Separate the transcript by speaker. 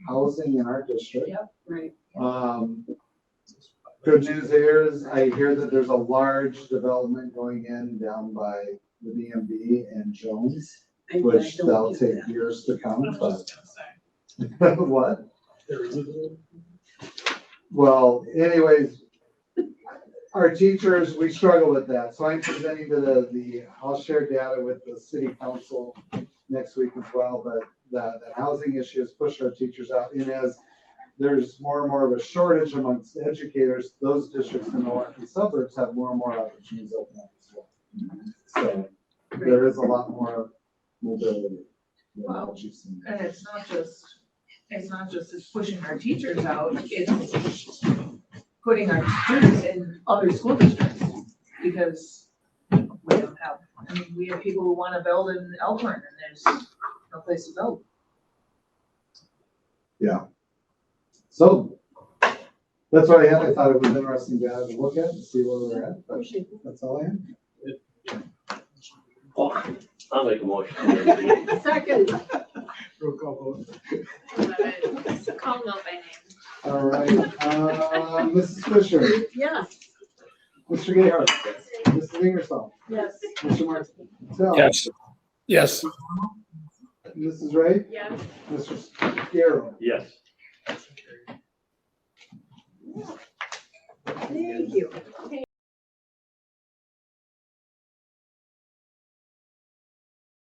Speaker 1: housing in our district.
Speaker 2: Yep, right.
Speaker 1: Um, good news there is I hear that there's a large development going in down by the DMV and Jones,
Speaker 2: I- I
Speaker 1: which
Speaker 2: don't
Speaker 1: that'll
Speaker 2: get
Speaker 1: take
Speaker 2: that.
Speaker 1: years to
Speaker 3: I
Speaker 1: come,
Speaker 3: was
Speaker 1: but
Speaker 3: just gonna say,
Speaker 1: what?
Speaker 3: there is a-
Speaker 1: Well, anyways, our teachers, we struggle with that, so I'm presenting to the, the, I'll share data with the city council next week as well, but the, the housing issue has pushed our teachers out, and as there's more and more of a shortage amongst educators, those districts in the Milwaukee suburbs have more and more opportunities open up as well. So there is a lot more mobility. than what you've seen.
Speaker 4: And it's not just, it's not just it's pushing our teachers out, it's putting our students in other school districts. Because we don't have, I mean, we have people who wanna build in Elkhorn and there's no place to build.
Speaker 1: So that's what I had. I thought it was interesting to have a look at and see where we're at. but That's all I had.
Speaker 5: Oh, I'll make a motion.
Speaker 2: Second,
Speaker 3: Roll call vote.
Speaker 6: Call them out by name.
Speaker 1: All right, uh, Mrs. Fisher,
Speaker 2: yes,
Speaker 1: Mr. Gayheart, Mrs. Ingersoll,
Speaker 2: yes.
Speaker 1: Mr. Martel.
Speaker 7: Yes. Yes.
Speaker 1: Mrs. Ray,
Speaker 6: Yeah.
Speaker 1: Mr. Scarrow.
Speaker 5: Yes.
Speaker 2: Thank you.